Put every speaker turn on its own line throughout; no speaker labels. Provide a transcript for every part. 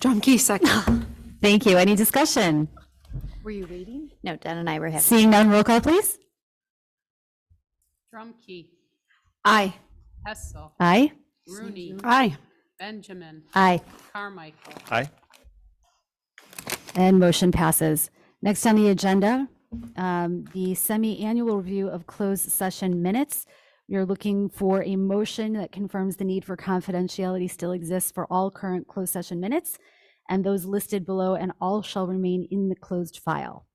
John Key, second.
Thank you. Any discussion?
Were you reading?
No, Dan and I were having.
Seeing none, roll call, please.
Drumkey,
Aye.
Hessel,
Aye.
Rooney,
Aye.
Benjamin,
Aye.
Carmichael.
Aye.
And motion passes. Next on the agenda, um, the semi-annual review of closed session minutes. You're looking for a motion that confirms the need for confidentiality still exists for all current closed session minutes and those listed below, and all shall remain in the closed file.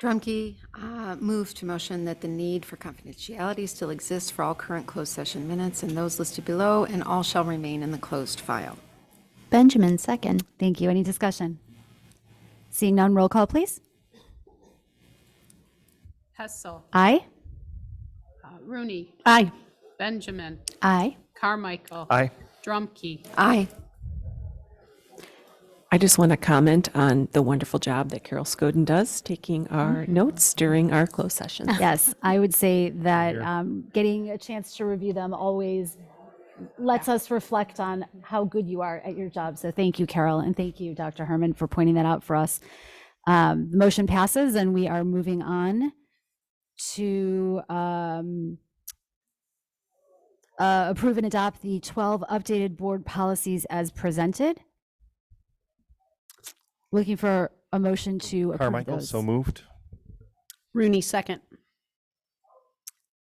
Drumkey uh, moved to motion that the need for confidentiality still exists for all current closed session minutes and those listed below, and all shall remain in the closed file.
Benjamin, second.
Thank you. Any discussion? Seeing none, roll call, please.
Hessel,
Aye.
uh, Rooney,
Aye.
Benjamin,
Aye.
Carmichael.
Aye.
Drumkey,
Aye.
I just want to comment on the wonderful job that Carol Scoden does taking our notes during our closed session.
Yes, I would say that um, getting a chance to review them always lets us reflect on how good you are at your job. So thank you, Carol, and thank you, Dr. Herman, for pointing that out for us. Um, the motion passes, and we are moving on to um, uh, approve and adopt the 12 updated board policies as presented. Looking for a motion to approve
Carmichael,
those.
so moved.
Rooney, second.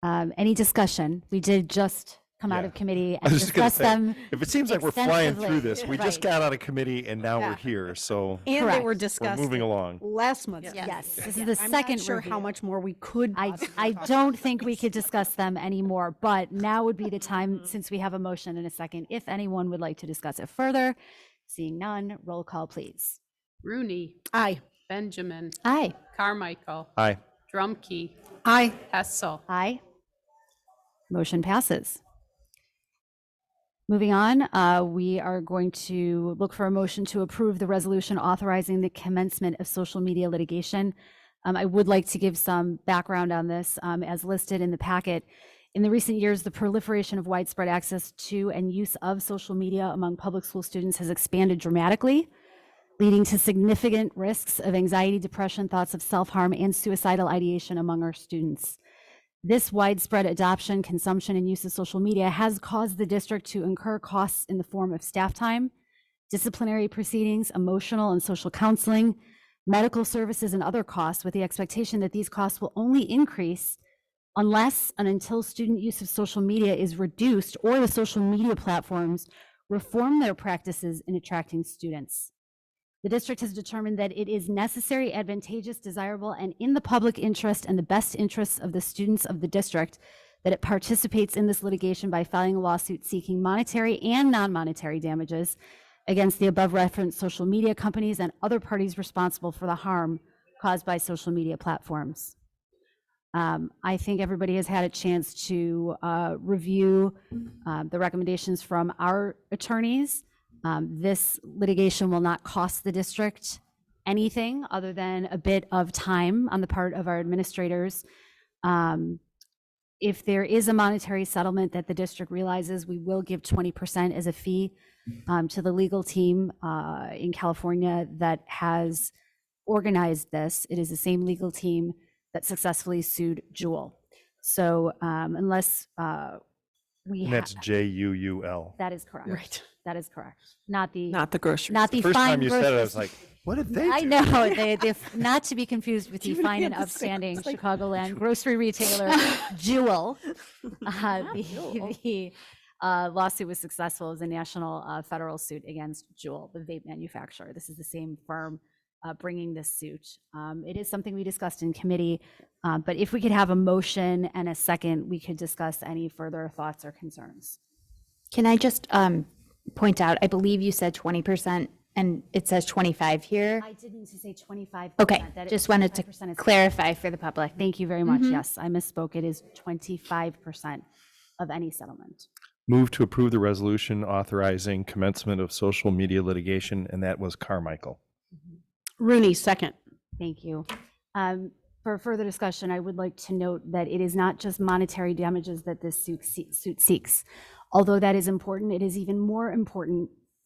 Um, any discussion? We did just come out
Yeah.
of committee
I
and
was just gonna
discuss
say,
them.
If it seems like we're flying through
extensively.
this, we just
Right.
got out of committee and now we're here, so
And they were
Correct.
we're
discussed
moving along.
last month.
Yes, this is the second
Sure
review.
how much more we could.
I,
possibly-
I don't think we could discuss them anymore, but now would be the
Mm-hmm.
time, since we have a motion in a second, if anyone would like to discuss it further. Seeing none, roll call, please.
Rooney,
Aye.
Benjamin,
Aye.
Carmichael.
Aye.
Drumkey,
Aye.
Hessel,
Aye. Motion passes. Moving on, uh, we are going to look for a motion to approve the resolution authorizing the commencement of social media litigation. Um, I would like to give some background on this um, as listed in the packet. In the recent years, the proliferation of widespread access to and use of social media among public school students has expanded dramatically leading to significant risks of anxiety, depression, thoughts of self harm, and suicidal ideation among our students. This widespread adoption, consumption, and use of social media has caused the district to incur costs in the form of staff time, disciplinary proceedings, emotional and social counseling, medical services, and other costs, with the expectation that these costs will only increase unless and until student use of social media is reduced or the social media platforms reform their practices in attracting students. The district has determined that it is necessary, advantageous, desirable, and in the public interest and the best interests of the students of the district that it participates in this litigation by filing a lawsuit seeking monetary and non-monetary damages against the above referenced social media companies and other parties responsible for the harm caused by social media platforms. Um, I think everybody has had a chance to uh, review uh, the recommendations from our attorneys. Um, This litigation will not cost the district anything other than a bit of time on the part of our administrators. Um, If there is a monetary settlement that the district realizes, we will give 20% as a fee
Mm.
um, to the legal team uh, in California that has organized this. It is the same legal team that successfully sued Jewel. So um, unless uh, we.
And
ha-
that's J U U L.
That is correct.
Right.
That is correct. Not the,
Not the grocery.
not the
First
fine
time you said it, I
grocery
was
store-
like, what did they
I
do?
know, they, they, not to be confused with the
Even
fine
we
and
had the same-
upstanding
it's like-
Chicagoland grocery retailer Jewel. Uh, The the, uh, lawsuit was successful. It was a national uh, federal suit against Jewel, the vape manufacturer. This is the same firm uh, bringing this suit. Um, It is something we discussed in committee, uh, but if we could have a motion and a second, we could discuss any further thoughts or concerns.
Can I just um, point out, I believe you said 20% and it says 25 here.
I did mean to say 25%.
Okay,
that it-
just wanted to
25% is-
clarify for the public.
Thank you very much. Yes, I misspoke. It is 25% of any settlement.
Move to approve the resolution authorizing commencement of social media litigation, and that was Carmichael.
Rooney, second.
Thank you. Um, For further discussion, I would like to note that it is not just monetary damages that this suit se- suit seeks. Although that is important, it is even more important